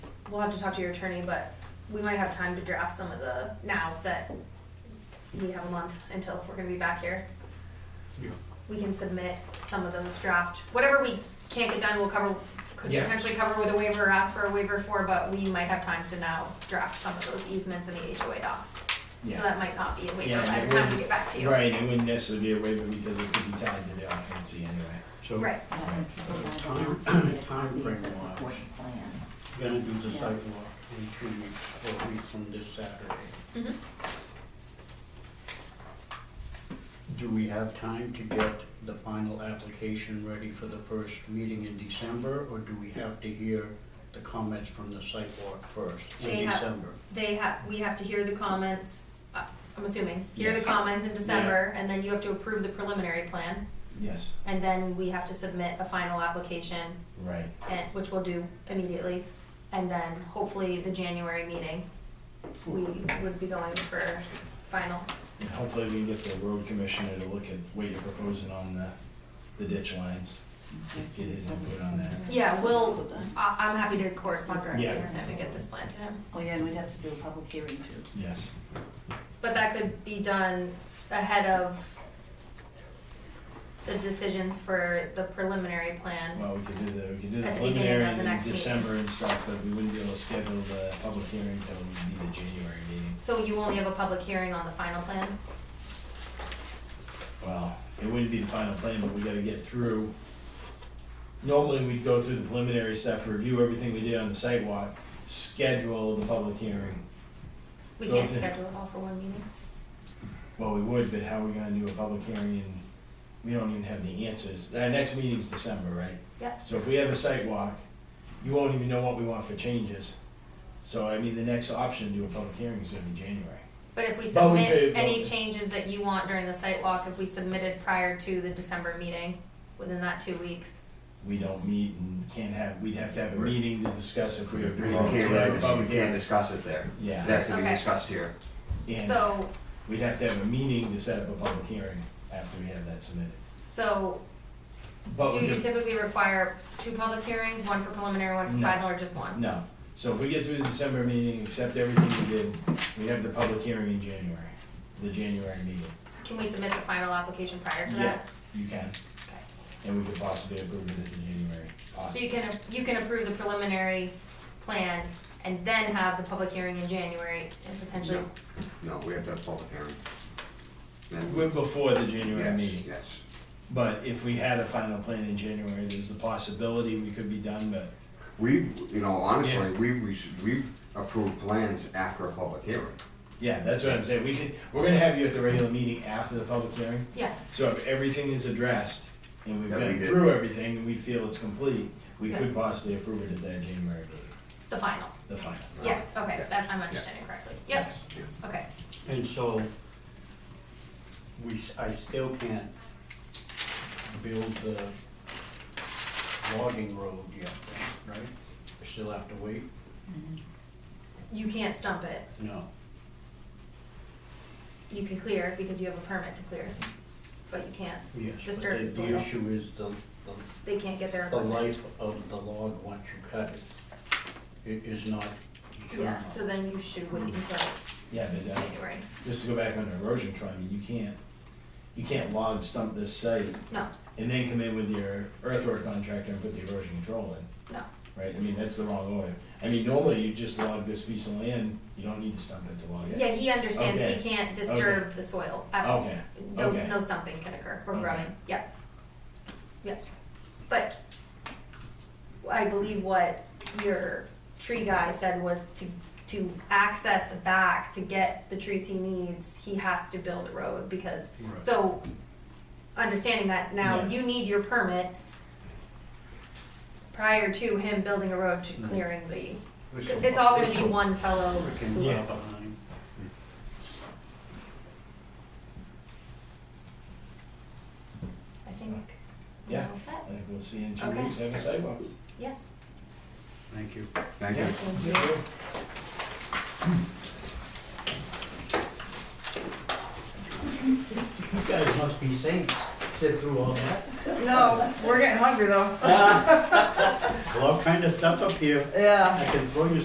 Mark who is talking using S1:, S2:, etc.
S1: we'll have to talk to your attorney, but we might have time to draft some of the, now that we have a month until we're gonna be back here.
S2: Yeah.
S1: We can submit some of those draft, whatever we can't get done, we'll cover, could
S3: Yeah.
S1: potentially cover with a waiver, or ask for a waiver for, but we might have time to now draft some of those easements and the HOA docs. So
S3: Yeah.
S1: that might not be a waiver
S3: Yeah,
S1: by
S3: it
S1: the time we
S3: wouldn't-
S1: get back to you.
S3: Right, it wouldn't necessarily be a waiver because it could be tied to the occupancy anyway.
S2: So
S1: Right.
S2: gonna do the
S4: Yeah.
S2: sidewalk in two weeks, four weeks from this Saturday.
S1: Mhm.
S2: Do we have time to get the final application ready for the first meeting in December? Or do we have to hear the comments from the sidewalk first
S1: They
S2: in
S1: have-
S2: December?
S1: They have, we have to hear the comments, uh, I'm assuming, hear the
S3: Yes.
S1: comments in December, and then you have to approve the preliminary plan,
S3: Yes,
S1: and then we have to submit a final application,
S3: right.
S1: and, which we'll do immediately, and then hopefully the January meeting, we would be going for final.
S3: And hopefully we can get the road commissioner to look at what you're proposing on the, the ditch lines. Get his input on that.
S1: Yeah, we'll, I, I'm happy to correspond directly
S3: Yeah.
S1: with him and get this plan to him,
S4: Oh, yeah, and we'd have to do a public hearing too.
S3: Yes.
S1: but that could be done ahead of the decisions for the preliminary plan.
S3: Well, we could do the, we could do the
S1: At the beginning of
S3: preliminary
S1: the
S3: in
S1: next meeting.
S3: December and stuff, but we wouldn't be able to schedule the public hearing until it would be the January meeting.
S1: So you only have a public hearing on the final plan?
S3: Well, it wouldn't be the final plan, but we gotta get through. Normally, we'd go through the preliminary stuff, review everything we did on the sidewalk, schedule the public hearing.
S1: We can't
S3: Okay.
S1: schedule it all for one meeting?
S3: Well, we would, but how are we gonna do a public hearing and we don't even have the answers? Our next meeting's December, right?
S1: Yep.
S3: So if we have a sidewalk, you won't even know what we want for changes. So I mean, the next option to do a public hearing is gonna be January.
S1: But if we
S3: But we
S1: submit
S3: could-
S1: any changes that you want during the site walk, if we submitted prior to the December meeting, within that two weeks,
S3: We don't meet and can't have, we'd have to have a
S5: Right.
S3: meeting to discuss if we
S5: We
S3: agree.
S5: can't,
S3: on
S5: really
S3: a public
S5: dis- we can't
S3: hearing.
S5: discuss it there. It
S3: Yeah,
S5: has to be
S1: Okay.
S5: discussed here.
S3: and
S1: so,
S3: we'd have to have a meeting to set up a public hearing after we have that submitted.
S1: so
S3: But
S1: do
S3: we
S1: you
S3: could,
S1: typically require two public hearings, one for preliminary, one for
S3: No.
S1: final, or just one?
S3: no, so if we get through the December meeting, accept everything we did, we have the public hearing in January, the January meeting.
S1: Can we submit the final application prior to
S3: Yeah,
S1: that?
S3: you can, and we could possibly approve it at the January,
S1: So
S3: possibly.
S1: you can, you can approve the preliminary plan and then have the public hearing in January and potentially,
S5: No, we have to have public hearing. Then-
S3: We're Before the January
S5: Yes,
S3: meeting.
S5: Yes,
S3: But if we had a final plan in January, there's the possibility we could be done, but
S5: we, you know, honestly,
S3: Yeah.
S5: we, we, we approved plans after a public hearing.
S3: yeah, that's what I'm saying. We could, we're gonna have you at the regular meeting after the public hearing.
S1: yeah.
S3: So if everything is addressed and we've
S5: That we
S3: been
S5: did.
S3: through everything and we feel it's complete, we
S1: Yeah.
S3: could possibly approve it at that January meeting,
S1: The final,
S3: the final.
S1: yes, okay,
S5: Yeah.
S1: that, I'm understanding correctly, yep,
S3: Yes.
S1: okay.
S2: And so, we, s- I still can't build the logging road yet, right? I still have to wait?
S1: You can't stump it,
S2: No.
S1: you can clear because you have a permit to clear, but you can't,
S2: Yes, but
S1: Disturb
S2: the,
S1: the
S2: the
S1: soil.
S2: issue is the, the,
S1: they can't get their
S2: the
S1: equipment.
S2: life of the log once you cut it, it is not eternal.
S1: Yeah, so then you should wait until
S3: Yeah, but uh,
S1: January,
S3: just to go back on the erosion trial, I mean, you can't, you can't log stump this site
S1: no,
S3: and then come in with your earthwork contractor and put the erosion control in,
S1: no,
S3: right? I mean, that's the wrong order. I mean, normally you just log this piece of land, you don't need to stump it to log it.
S1: yeah, he understands he
S3: Okay.
S1: can't disturb the soil at all.
S3: Okay,
S1: No,
S3: okay.
S1: no stumping can occur or
S3: Okay.
S1: grubbing, yeah, yeah, but I believe what your tree guy said was to, to access the back, to get the trees he needs, he has to build a road because
S2: Right.
S1: So, understanding that now,
S3: Yeah.
S1: you need your permit prior to him building a road
S3: Mm-hmm.
S1: to clearing the, it's all gonna be one fellow
S2: Freaking
S1: school.
S2: well behind.
S1: I think. we're
S3: Yeah.
S1: all set.
S3: I think we'll see you in two
S1: Okay.
S3: weeks, have a sidewalk.
S1: Yes.
S2: Thank you.
S5: Thank you.
S1: Thank you.
S3: Yeah.
S2: You guys must be saints, sit through all that.
S6: No, we're getting hungry though.
S2: Well, all kind of stuff up here.
S6: Yeah.
S2: I can throw you